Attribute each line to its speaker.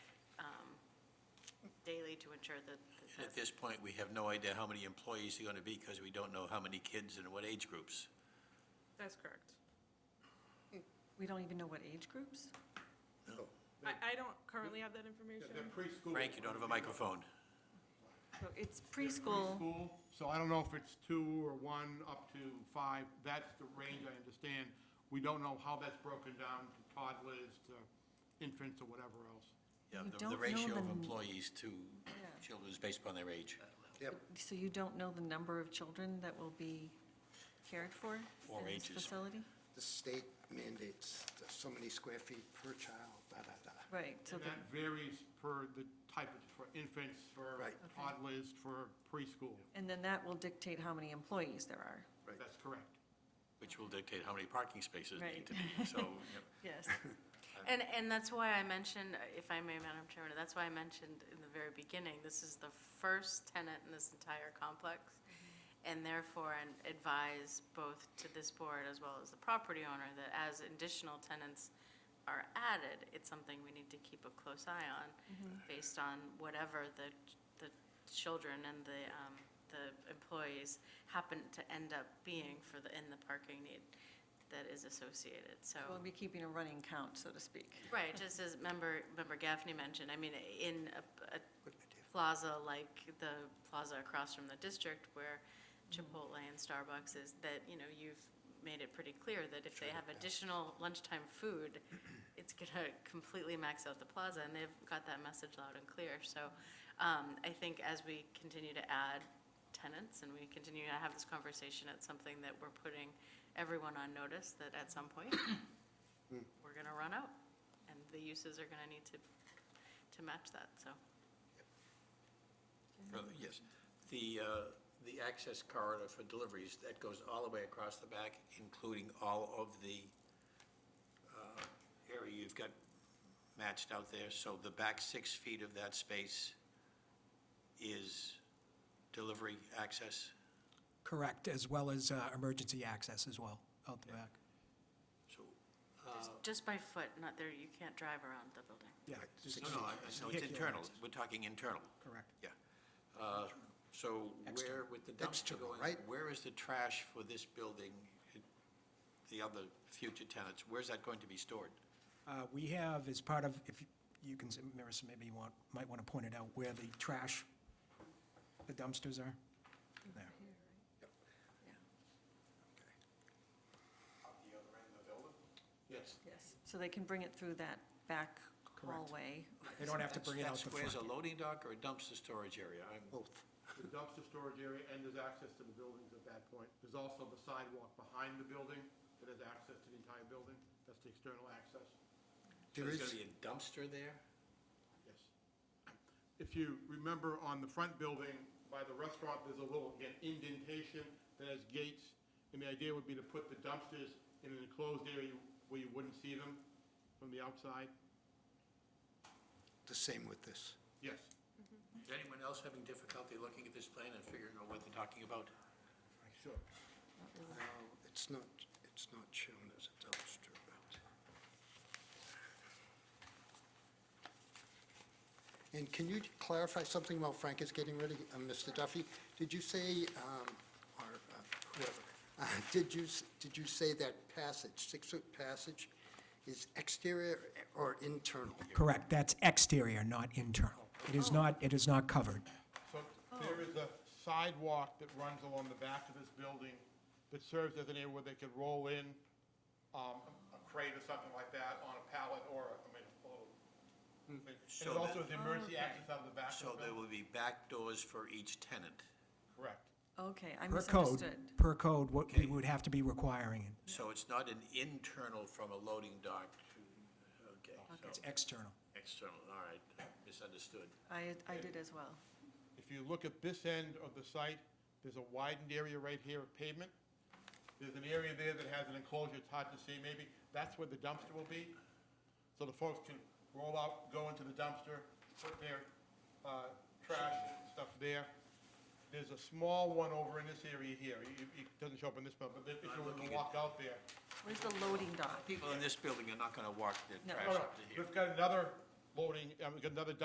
Speaker 1: um, daily to ensure that. that
Speaker 2: At
Speaker 1: that's-
Speaker 2: this point, we have no idea how many employees are going to be because we don't know how many kids and what age groups.
Speaker 3: That's correct.
Speaker 4: We don't even know what age groups?
Speaker 3: I, I don't currently have that information.
Speaker 5: They're preschool.
Speaker 2: Frank, you don't have a microphone.
Speaker 4: So it's preschool,
Speaker 5: Preschool, so I don't know if it's two or one, up to five, that's the range I understand. We don't know how that's broken down to toddlers, to infants, or whatever else.
Speaker 2: Yeah,
Speaker 4: You
Speaker 2: the-
Speaker 4: don't know
Speaker 2: The ratio of
Speaker 4: the-
Speaker 2: employees to
Speaker 4: Yeah.
Speaker 2: children is based upon their age,
Speaker 4: so you don't know the number of children that will be cared for
Speaker 2: Or
Speaker 4: in this
Speaker 2: ages.
Speaker 4: facility?
Speaker 6: The state mandates so many square feet per child, da, da, da.
Speaker 4: Right, so
Speaker 5: And
Speaker 4: the-
Speaker 5: that varies per the type, of- for infants, for
Speaker 6: Right.
Speaker 4: Okay.
Speaker 5: toddlers, for preschool.
Speaker 4: and then that will dictate how many employees there are.
Speaker 6: Right.
Speaker 5: That's correct.
Speaker 2: which will dictate how many parking spaces need
Speaker 4: Right.
Speaker 2: to be. So, you know,
Speaker 4: Yes.
Speaker 1: And, and that's why I mentioned, uh, if I may, Madam Chairman, that's why I mentioned in the very beginning, this is the first tenant in this entire complex. And therefore, I advise both to this board as well as the property owner that as additional tenants are added, it's something we need to keep a close eye on based on whatever the, the children and the, um, the employees happen to end up being for the, in the parking need that is associated, so.
Speaker 4: We'll be keeping a running count, so to speak.
Speaker 1: Right, just as member, member Gaffney mentioned, I mean, in a, a
Speaker 6: Good idea.
Speaker 1: plaza like the plaza across from the district where Chipotle and Starbucks is, that, you know, you've made it pretty clear that if they have additional lunchtime food, it's gonna completely max out the plaza, and they've got that message loud and clear. So, um, I think as we continue to add tenants and we continue to have this conversation, it's something that we're putting everyone on notice that at some point, we're gonna run out, and the uses are gonna need to, to match that, so.
Speaker 2: further- Yes. The, uh, the access corridor for deliveries, that goes all the way across the back, including all of the uh, area you've got matched out there. So the back six feet of that space is delivery access?
Speaker 7: Correct, as well as uh, emergency access as well, out the back.
Speaker 2: So,
Speaker 1: Just- Just by foot, not there, you can't drive around the building.
Speaker 7: Yeah, just-
Speaker 2: no, no, I- I know it's internal. We're talking internal.
Speaker 7: Correct.
Speaker 2: Yeah. Uh, So where,
Speaker 7: External.
Speaker 2: with the dumpster
Speaker 6: External,
Speaker 2: going,
Speaker 6: right?
Speaker 2: where is the trash for this building, the other future tenants? Where's that going to be stored?
Speaker 7: Uh, We have, as part of, if you- you can, Marissa, maybe you want, might want to point it out, where the trash, the dumpsters are. There.
Speaker 2: Up the other end of the building?
Speaker 5: Yes.
Speaker 4: Yes. So they can bring it through that back
Speaker 7: Correct.
Speaker 4: hallway.
Speaker 7: They don't have to bring it out the
Speaker 2: That square's a
Speaker 7: front.
Speaker 2: loading dock or a dumpster storage area? I'm-
Speaker 6: Both.
Speaker 5: The dumpster storage area, and there's access to the buildings at that point. There's also the sidewalk behind the building that has access to the entire building. That's the external access,
Speaker 2: So
Speaker 6: There
Speaker 2: There's going
Speaker 6: is,
Speaker 2: to be a dumpster there?
Speaker 5: yes. If you remember on the front building, by the restaurant, there's a little, again, indentation that has gates. And the idea would be to put the dumpsters in an enclosed area where you wouldn't see them from the outside.
Speaker 6: the same with this.
Speaker 5: Yes.
Speaker 2: Is anyone else having difficulty looking at this plan and figuring out what they're talking about?
Speaker 5: Sure.
Speaker 6: No, it's not, it's not shown as a dumpster, but. And can you clarify something while Frank is getting ready? Uh, Mr. Duffy, did you say, um, or uh, whoever, uh, did you, s- did you say that passage, six-foot passage, is exterior or internal?
Speaker 7: Correct, that's exterior, not internal.
Speaker 2: Oh,
Speaker 7: It is not, it is not covered.
Speaker 5: So there is a sidewalk that runs along the back of this building that serves as an area where they could roll in um, a crate or something like that on a pallet or, I mean, a little thing. And it
Speaker 2: So
Speaker 5: also
Speaker 2: that-
Speaker 5: is emergency access out of the back
Speaker 2: So
Speaker 5: of the
Speaker 2: there
Speaker 5: building.
Speaker 2: will be back doors for each tenant.
Speaker 5: Correct.
Speaker 4: Okay, I
Speaker 7: Per code,
Speaker 4: misunderstood.
Speaker 7: per code, what
Speaker 2: Okay.
Speaker 7: we would have to be requiring it.
Speaker 2: So it's not an internal from a loading dock to, okay. so-
Speaker 7: It's external.
Speaker 2: External, all right, misunderstood.
Speaker 4: I, I did as well.
Speaker 5: If you look at this end of the site, there's a widened area right here of pavement. There's an area there that has an enclosure, it's hard to see maybe. That's where the dumpster will be. So the folks can roll out, go into the dumpster, put their uh, trash and stuff there. There's a small one over in this area here. It it doesn't show up in this one, but if you were to walk out there.
Speaker 4: Where's the loading dock?
Speaker 2: People in this building are not going to walk their
Speaker 4: No.
Speaker 2: trash
Speaker 5: No, no,
Speaker 2: up to here.
Speaker 5: we've got another loading, uh, we've got another